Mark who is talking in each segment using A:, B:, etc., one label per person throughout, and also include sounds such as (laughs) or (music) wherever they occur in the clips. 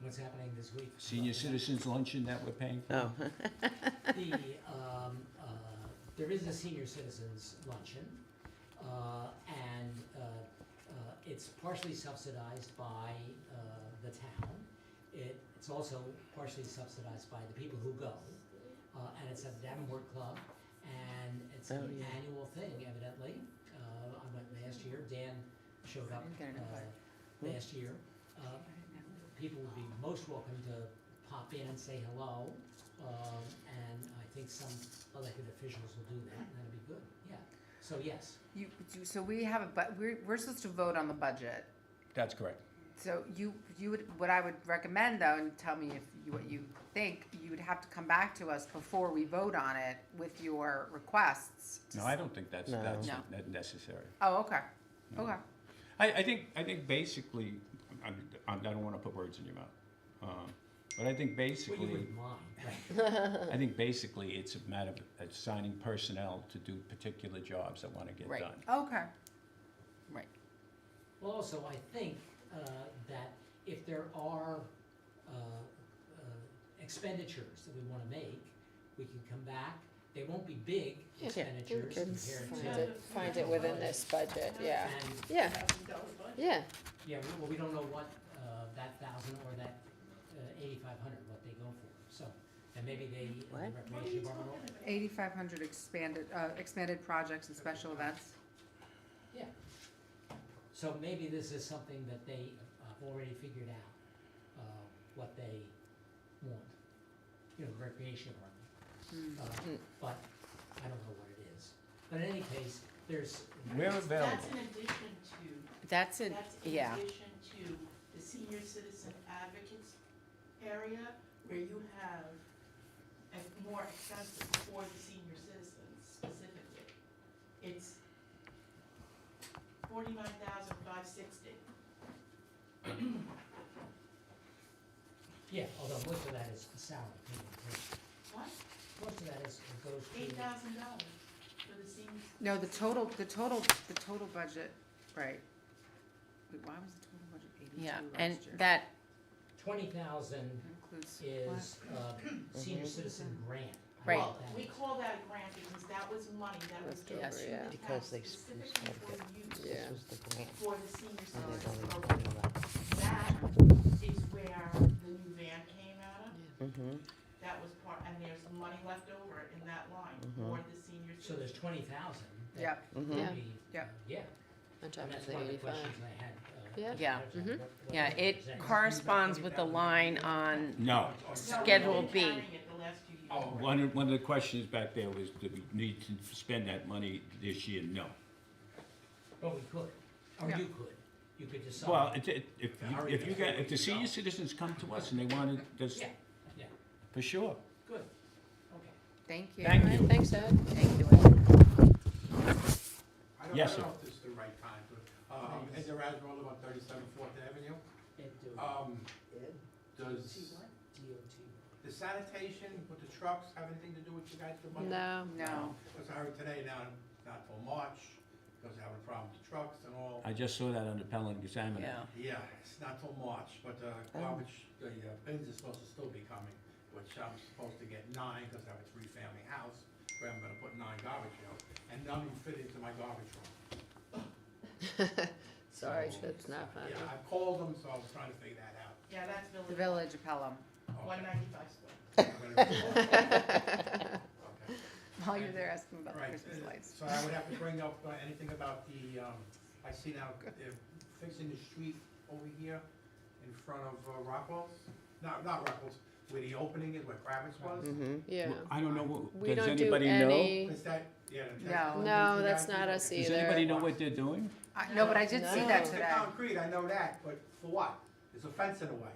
A: what's happening this week.
B: Senior citizens luncheon that we're paying for?
C: Oh,
A: The, um, uh, there is a senior citizens luncheon, uh, and, uh, uh, it's partially subsidized by, uh, the town. It, it's also partially subsidized by the people who go, uh, and it's at the Davenport Club, and it's
C: Oh,
A: an
C: yeah.
A: annual thing evidently. Uh, I went last year, Dan showed up,
D: Didn't get an invite.
A: uh, last year. Uh, people would be most welcome to pop in and say hello. Um, and I think some elected officials will do that, and that'll be good, yeah. So yes,
D: You, you- so we have a, but we're, we're supposed to vote on the budget.
B: That's correct.
D: So you, you would, what I would recommend though, and tell me if you, what you think, you would have to come back to us before we vote on it with your requests. to
B: No, I don't think that's,
C: No.
B: that's
D: No.
B: ne- necessary.
D: Oh, okay, okay.
B: I, I think, I think basically, I, I I don't wanna put words in your mouth. Um, But I think
A: well, you
B: basically,
A: wouldn't mind, (laughs) right?
B: I think basically it's a matter of assigning personnel to do particular jobs that wanna get
D: Right.
B: done.
D: Okay. Right.
A: Well, also, I think, uh, that if there are, uh, uh, expenditures that we wanna make, we can come back, they won't be big
E: Yeah,
C: yeah, we
A: expenditures
C: can
A: compared
C: find
A: to.
C: it, find it within this budget, yeah,
A: And
C: yeah, yeah,
A: Yeah, we- well, we don't know what, uh, that thousand or that uh, eighty-five hundred, what they go for, so, and maybe they,
C: What?
A: the recreation department,
D: Eighty-five hundred expanded, uh, expanded projects and special events.
A: yeah. So maybe this is something that they have already figured out, uh, what they want, you know, the recreation
D: Hmm.
A: department. Uh, But I don't know what it is, but in any case, there's,
B: We're available.
F: That's in addition to,
C: that's a,
F: that's in
C: yeah,
F: addition to the senior citizen advocates area where you have a more accessible for the senior citizens specifically. It's forty-nine thousand five sixty.
A: yeah, although most of that is salary, people,
F: What?
A: most of that is, goes to.
F: Eight thousand dollars for the senior.
D: No, the total, the total, the total budget, right. Wait, why was the total budget eighty-two
E: Yeah,
D: last year?
E: and that,
A: Twenty thousand
D: Includes what?
A: is uh, senior citizen grant. I
E: Right.
A: love
F: Well,
A: that.
F: we call that a grant because that was money that was given
C: Leftover,
F: to
C: yeah.
F: the town
G: Because they screwed
F: specifically
G: something.
F: for use
C: yeah.
F: for the senior
G: They
F: citizens
G: don't
F: program.
G: even do that.
F: That is where the new van came out of,
C: mhm,
F: that was part, and there's money left over in that line
G: Mm-hmm.
F: for the senior
A: So there's
F: citizens.
A: twenty thousand.
D: Yep.
A: mm-hmm.
C: mhm,
A: Yeah,
D: Yep.
A: uh, yeah,
C: on top
A: and
C: of
A: that's
C: the
A: one of the
C: eighty-five.
A: questions I had. uh,
C: Yeah.
A: as
E: Yeah,
A: far as that, what-
C: mhm.
A: what
E: yeah,
A: that
E: it
A: represents.
E: corresponds with the line on
B: No.
F: No, we've been
E: Schedule B.
F: carrying it the last few years.
A: Oh,
B: One, of- one of the questions back there was, do we need to spend that money this year? No.
A: But we could, or
D: Yeah.
A: you could, you could decide.
B: Well, it, it, if, you- if you get, if the senior citizens come to us and they want to, just,
A: Yeah, yeah,
B: for sure.
A: good, okay.
D: Thank you.
B: Thank
C: Alright,
B: you.
C: thanks, Ed.
D: Thank you, Ed.
H: I don't,
B: Yes,
H: I
B: sir.
H: don't know if this is the right time, but, um, Ed Erasmo, about thirty-seven Fourth Avenue.
B: Uh,
H: Um, does the sanitation with the trucks have anything to do with you guys? the money?
C: No,
D: No.
H: Because I heard today now, not till March, because they're having a problem with the trucks and all.
B: I just saw that on the Pelham Examiner.
C: yeah,
H: Yeah, it's not till March, but the garbage, the uh, bins are supposed to still be coming, which I'm supposed to get nine, because I have a three-family house, where I'm gonna put nine garbage out, and none of them fit into my garbage room.
C: (laughs) sorry,
H: So-
C: that's not fun.
H: Yeah, I called them, so I was trying to figure that out.
F: Yeah, that's
D: The
F: village,
D: Village of Pelham.
F: one ninety-five square.
D: While you're there asking about the
H: Right,
D: Christmas lights.
H: so I would have to bring up uh, anything about the, um, I see now they're fixing the street over here in front of uh, Rockwell's, not, not Rockwell's, where the opening is, where Kravitz was.
D: Mm-hmm.
C: mhm, (laughs) yeah.
B: Well, I don't know, what-
C: We
B: does
C: don't do
B: anybody know?
C: any,
H: Is that, yeah. that's-
D: No.
C: No,
H: you
C: that's
H: guys do?
C: not us
H: Okay.
B: Does
C: either.
B: anybody know what they're doing?
D: I- No, but I did see that
C: No.
H: It's the
D: today.
H: concrete, I know that, but for what? There's a fence in the way.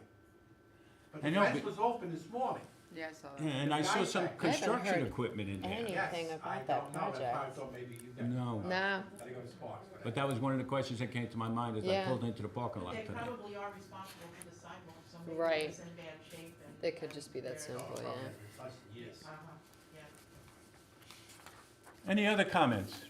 H: But
B: I
H: the
B: know,
H: fence
B: but-
H: was open this morning.
D: Yeah, I saw
B: Yeah,
D: that.
B: And I saw some
H: I haven't
B: construction
C: heard
B: equipment in there.
C: any- Anything
H: Yes,
C: about that
H: I don't know, that's why I
C: project.
H: thought maybe you guys.
B: No.
C: no,
H: I think it was Sparks. but I-
B: But that was one of the questions that came to my mind as I
C: Yeah.
B: pulled into the parking lot
F: They
B: today.
F: probably are responsible for the sidewalk, so maybe
C: Right.
F: it's in bad shape and.
C: it could just be that
H: Oh,
C: simple,
H: okay,
C: yeah.
H: that's- Yes.
F: Uh-huh, yeah.
B: Any other comments?